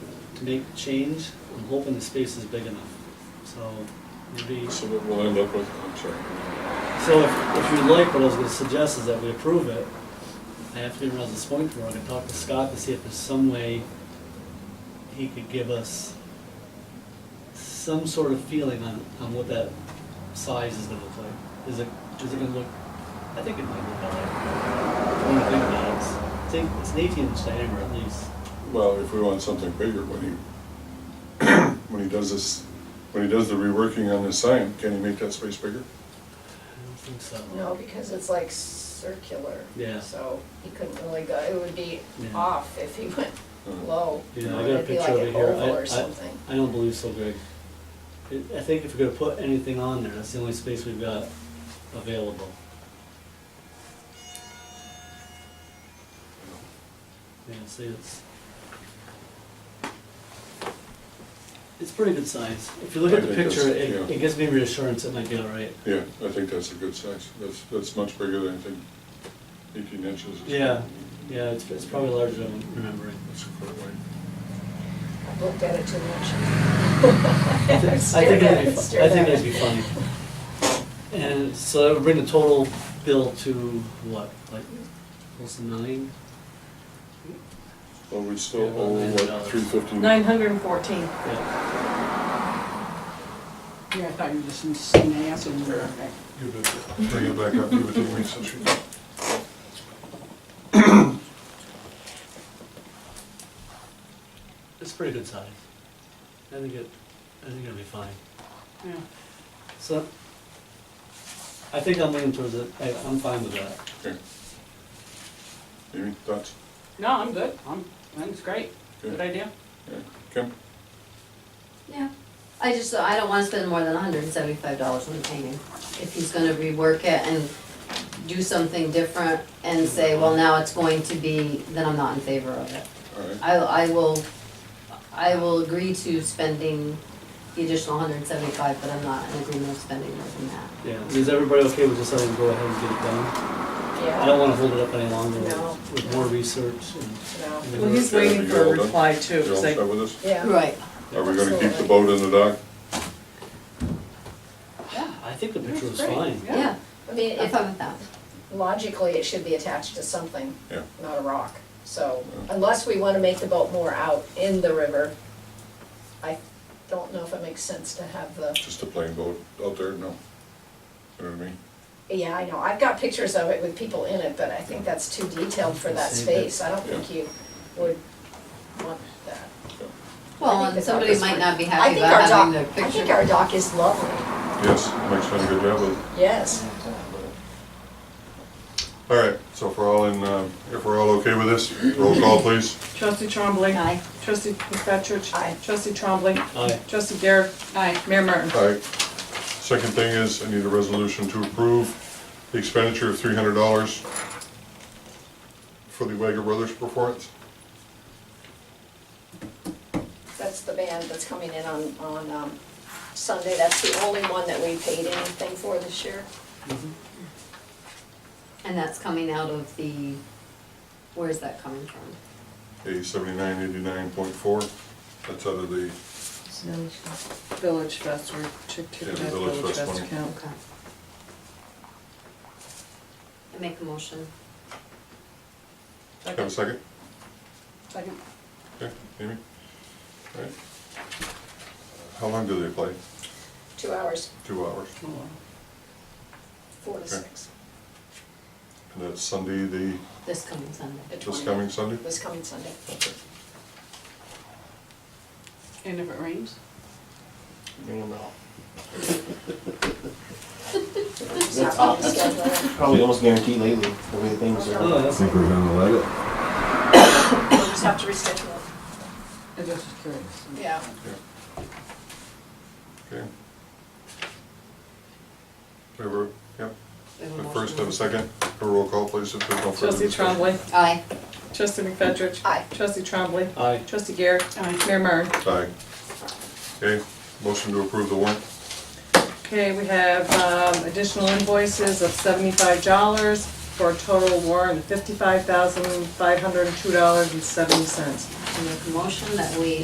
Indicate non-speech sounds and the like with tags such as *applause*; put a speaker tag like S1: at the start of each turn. S1: to make change, I'm hoping the space is big enough. So maybe,
S2: So what we'll end up with, I'm sorry.
S1: so if, if you like, what I was gonna suggest is that we approve it. I have to be around this point tomorrow, I can talk to Scott to see if there's some way he could give us some sort of feeling on, on what that size is gonna look like. Is it, is it gonna look, I think it might look all right. When I think about it, it's, I think it's an eighteen inch diameter at least.
S2: Well, if we want something bigger, when he, when he *clears throat* does this, when he does the reworking on this sign, can he make that space bigger?
S1: I don't think so.
S3: No, because it's like circular.
S1: Yeah.
S3: So he couldn't really go, it would be
S1: Yeah.
S3: off if he went
S2: Uh,
S3: low.
S1: Yeah, I
S3: Or
S1: got a
S3: it'd be
S1: picture
S3: like
S1: over
S3: an
S1: here.
S3: oval
S1: I- I-
S3: or something.
S1: I don't believe so, Greg. I- I think if we're gonna put anything on there, that's the only space we've got available. Yeah, see, it's. It's pretty good size. If you look at
S2: I
S1: the
S2: think
S1: picture,
S2: that's-
S1: it,
S2: yeah.
S1: it gives me reassurance it might be all right.
S2: Yeah, I think that's a good size. That's, that's much bigger than I think eighteen inches. is-
S1: Yeah. Yeah, it's, it's probably larger than I'm remembering.
S2: That's quite wide.
S3: I've looked at it too much.
S1: *laughs* I think- I think it'd be, fu- I
S3: Stared
S1: think
S3: at
S1: it'd
S3: it.
S1: be funny. And so that would bring the total bill to what, like, close to nine?
S2: Well, we still
S1: Yeah,
S2: owe
S1: about
S2: like
S1: $9.
S2: three fifty.
S4: Nine hundred and fourteen.
S1: Yeah,
S5: Yeah, I thought you were just saying ass and you were like,
S2: Give it- Bring it back up, give it to me since we.
S1: it's pretty good size. I think it, I think it'll be fine.
S5: yeah.
S1: So, I think I'm leaning towards it, I, I'm fine with that.
S2: Okay. Amy, thoughts?
S5: No, I'm good. I'm, I think it's great. Good
S2: Okay.
S5: idea.
S2: Yeah. Kim?
S6: Yeah, I just, uh, I don't wanna spend more than hundred and seventy-five dollars on the painting. If he's gonna rework it and do something different and say, well, now it's going to be, then I'm not in favor of it.
S2: All right.
S6: I, I will, I will agree to spending the additional hundred and seventy-five, but I'm not in agreement of spending more than that.
S1: Yeah, is everybody okay with just letting it go ahead and get it done? I don't
S3: Yeah,
S1: wanna hold it up any longer
S3: No.
S1: with with more research and.
S3: no,
S4: Well, he's waiting for a reply too,
S2: You all
S4: because I
S2: set with us?
S3: yeah.
S6: Right.
S2: Are we gonna keep the boat in the dock?
S1: Yeah, I think the picture was
S5: That's great.
S1: fine.
S5: Yeah.
S6: Yeah,
S3: I mean,
S6: I'm
S3: if,
S6: fine with that.
S3: logically, it should be attached to something,
S2: Yeah.
S3: not a rock. So unless we wanna make the boat more out in the river, I don't know if it makes sense to have the
S2: Just a plain boat out there? No. You know what I mean?
S3: Yeah, I know, I've got pictures of it with people in it, but I think that's too detailed for that
S1: Save it.
S3: space, I don't think you would want that.
S6: Well,
S3: I think
S6: and
S3: the dock
S6: somebody
S3: is
S6: might
S3: fine.
S6: not be
S3: I
S6: happy
S3: think our
S6: about having their
S3: dock, I
S6: picture.
S3: think our dock is lovely,
S2: Yes, Mike's done a good job with it.
S3: yes,
S2: All right, so if we're all in, um, if we're all okay with this, roll call please.
S4: Trustee Trombley.
S6: Aye.
S4: Trustee McFetrich.
S3: Aye.
S4: Trustee Trombley.
S1: Aye.
S4: Trustee Garrett. Aye. Mayor Martin.
S2: All right. Second thing is, I need a resolution to approve the expenditure of three hundred dollars for the Wagger Brothers performance.
S3: that's the band that's coming in on, on, um, Sunday, that's the only one that we paid anything for this year.
S6: And that's coming out of the, where is that coming from?
S2: A seventy-nine eighty-nine point four, that's out of the,
S4: Village Fest, we're checking
S2: Yeah,
S4: out
S2: the Village
S4: Village
S2: Fest
S4: Fest
S2: one.
S4: account.
S6: Okay. I make a motion.
S2: have a second?
S5: Second.
S2: Okay, Amy? All right. How long do they play?
S3: Two hours,
S2: Two hours.
S5: Oh,
S3: four to
S2: Okay.
S3: six,
S2: And that's Sunday, the,
S6: This coming Sunday.
S3: the
S2: this
S3: 20th.
S2: coming Sunday?
S3: This coming Sunday.
S2: Okay.
S5: And if it rains?
S3: It's not on the schedule.
S7: Probably almost guaranteed lately, the way things are.
S1: Oh, that's.
S8: think we're gonna let it.
S3: We'll just have to reschedule it.
S5: I just was curious.
S3: Yeah.
S2: Yeah. Okay. We were, yep,
S6: We have a
S2: the
S6: motion.
S2: first and a second, a roll call please if there's no further
S4: Trustee
S2: discussion.
S4: Trombley.
S6: Aye.
S4: Trustee McFetrich.
S3: Aye.
S4: Trustee Trombley.
S1: Aye.
S4: Trustee Garrett. Aye. Mayor Martin.
S2: Aye. Okay, motion to approve the warrant,
S4: Okay, we have um, additional invoices of seventy-five dollars for a total warrant of fifty-five thousand, five hundred and two dollars and seventy cents.
S6: I make a motion that we